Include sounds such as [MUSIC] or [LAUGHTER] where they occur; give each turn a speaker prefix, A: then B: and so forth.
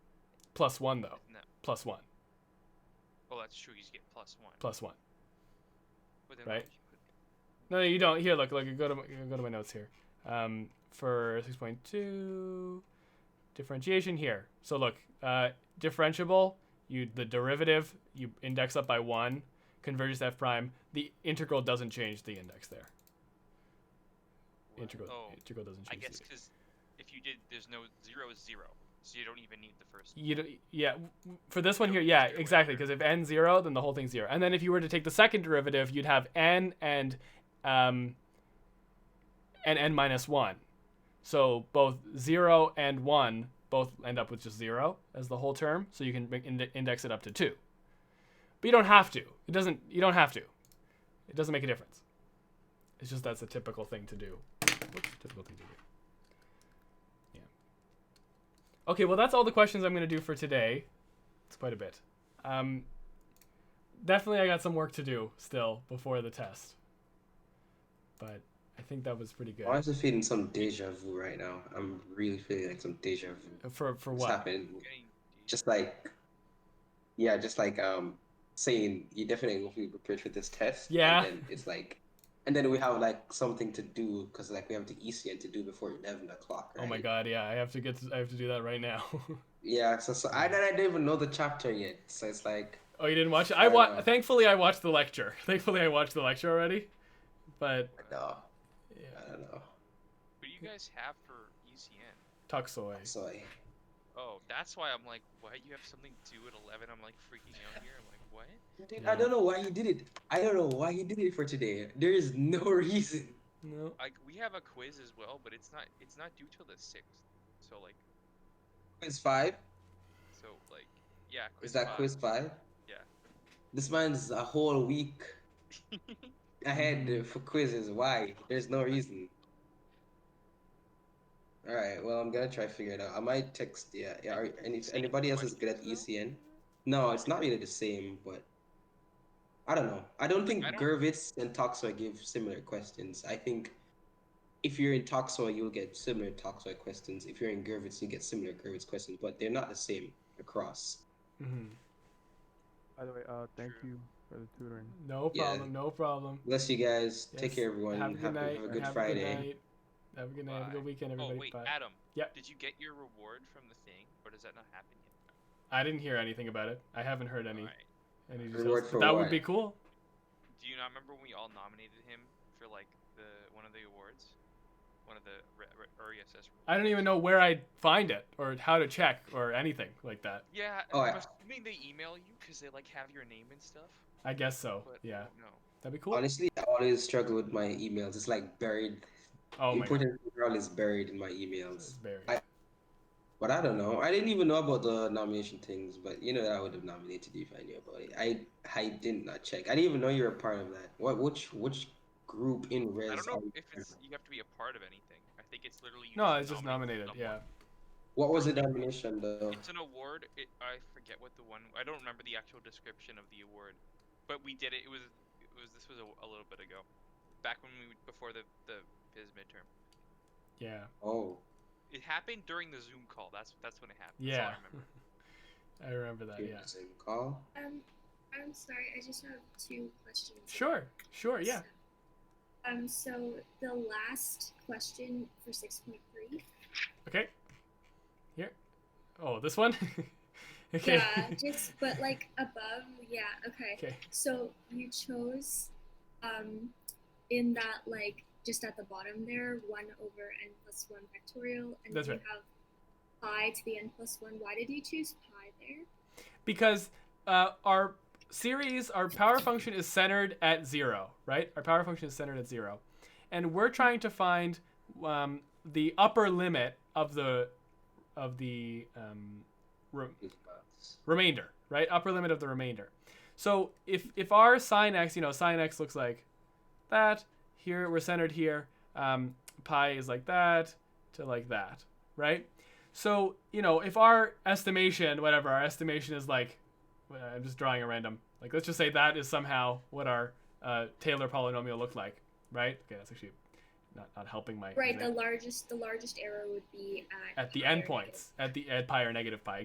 A: plus one though.
B: No.
A: Plus one.
B: Oh, that's true. You just get plus one.
A: Plus one.
B: But then
A: right.
B: why would you-
A: No, you don't. Here, look, look. Go to my, go to my notes here. Um, for six point two, differentiation here. So look, uh, differentiable. You the derivative you index up by one, converges to f prime. The integral doesn't change the index there.
B: Well,
A: Integral
B: Oh,
A: integral doesn't
B: I
A: change.
B: guess
A: the,
B: because if you did, there's no zero is zero, so you don't even need the first.
A: you do, yeah w- w- for this one
B: No,
A: here yeah
B: zero,
A: exactly
B: whatever.
A: because if n zero then the whole thing's zero and then if you were to take the second derivative you'd have n and um and n minus one so both zero and one both end up with just zero as the whole term so you can make- inde- index it up to two but you don't have to it doesn't you don't have to it doesn't make a difference it's just that's a typical thing to do Whoops, typical thing to do Okay, well, that's all the questions I'm going to do for today. It's quite a bit. Um, definitely, I got some work to do still before the test. But I think that was pretty good.
C: Why is it feeling some deja vu right now? I'm really feeling like some deja vu.
A: Uh, For for
C: What's
A: what?
C: happened?
B: Getting D-
C: Just like, yeah, just like um, saying you definitely won't be prepared for this test.
A: Yeah.
C: And then it's like, and then we have like something to do because like we have the ECN to do before eleven o'clock.
A: Oh my
C: right?
A: god, yeah, I have to get to, I have to do that right now. [LAUGHS]
C: Yeah. So, so I I didn't even know the chapter yet. So it's like,
A: oh, you didn't watch it? I
C: I
A: wa-
C: know.
A: Thankfully, I watched the lecture. [LAUGHS] Thankfully, I watched the lecture already. But
C: no,
A: yeah,
C: I don't know.
B: What do you guys have for ECN?
A: Tuxoy.
C: So I-
B: Oh, that's why I'm like, what? You have something due at 11? I'm like freaking out here. I'm like, what?
C: Dude,
A: Yeah.
C: I don't know why he did it. I don't know why he did it for today. There is no [LAUGHS] reason.
A: No.
B: Like we have a quiz as well, but it's not it's not due till the sixth. So like
C: Quiz five.
B: so like yeah.
C: Is that
B: five.
C: quiz five?
B: Yeah.
C: This man's a
B: [LAUGHS]
C: whole week ahead for quizzes. Why? There's no reason. All right. Well, I'm gonna try to figure it out. I might text. Yeah. yeah are, and if anybody else is good at ECN, no, it's not really the same. But I don't know. I don't think
B: I don't-
C: Gervitz and Toxoy give similar questions. I think if you're in Toxoy, you'll get similar Toxoy questions. If you're in Gervitz, you get similar Gervitz questions. But they're not the same across.
A: hmm
D: By the way, uh, thank
B: True.
D: you for the tutoring.
A: No
C: Yeah.
A: problem. No problem.
C: Bless you guys. Take
A: Yes,
C: care, everyone.
A: Have a good night.
C: have a good
A: have
C: Friday.
A: A good night. Have a good night. Have a good
B: Bye.
A: weekend, everybody.
B: Oh wait,
A: Bye.
B: Adam.
A: Yeah.
B: Did you get your reward from the thing, or does that not happen yet?
A: I didn't hear anything about it. I haven't heard any
B: Alright.
A: any details.
C: Reward
A: but
C: for
A: that would
C: what?
A: be cool.
B: Do you not remember when we all nominated him for like the one of the awards, one of the re- E re- RESS?
A: I don't even know where I'd find it or how to check or anything like that.
B: Yeah,
C: Oh,
B: I'm
C: yeah.
B: assuming they email you because they like have your name and stuff.
A: I guess so.
B: But
A: Yeah,
B: no.
A: that'd be cool.
C: Honestly, I always struggle with my emails. It's like buried.
A: oh my god,
C: Important material is buried in my
A: this
C: emails.
A: is buried.
C: I- But I don't know. I didn't even know about the nomination things. But you know that I would have nominated you if I knew about it. I I did not check. I didn't even know you were a part of that. What which which group in res?
B: I don't know
C: are you
B: if
C: part
B: it's
C: of?
B: you have to be a part of anything. I think it's literally. You
A: no, it's just
B: nominate
A: nominated.
B: someone.
A: Yeah,
C: What was the nomination though?
B: It's an award. It, I forget what the one. I don't remember the actual description of the award, but we did it. It was. It was. This was a, a little bit ago, back when we before the the his midterm.
A: yeah,
C: Oh,
B: It happened during the Zoom call. That's that's when it happened. That's all
A: yeah.
B: I remember.
A: [LAUGHS] I remember that. Yeah.
C: Zoom call.
E: Um, I'm sorry, I just have two questions.
A: Sure. Sure. Yeah.
E: Um, so the last question for six point three.
A: Okay. Here. Oh, this one. [LAUGHS] okay.
E: Yeah, just but like above, yeah, okay.
A: [LAUGHS] okay.
E: So you chose um in that like just at the bottom there, one over n plus one factorial and
A: That's
E: then
A: right.
E: you have pi to the n plus one. Why did you choose pi there?
A: because uh, our series, our power function is centered at zero, right? Our power function is centered at zero, and we're trying to find um, the upper limit of the of the um, re- remainder, right? Upper limit of the remainder. So if if our sine x, you know, sine x looks like that. Here we're centered here. Um, pi is like that to like that, right? So you know, if our estimation, whatever our estimation is like, well, I'm just drawing a random. Like let's just say that is somehow what our uh, Taylor polynomial looked like, right? Okay, that's actually not not helping my
E: Right, the
A: example.
E: largest the largest error would be at
A: at the
E: pi or negative.
A: endpoints at the at pi or negative pi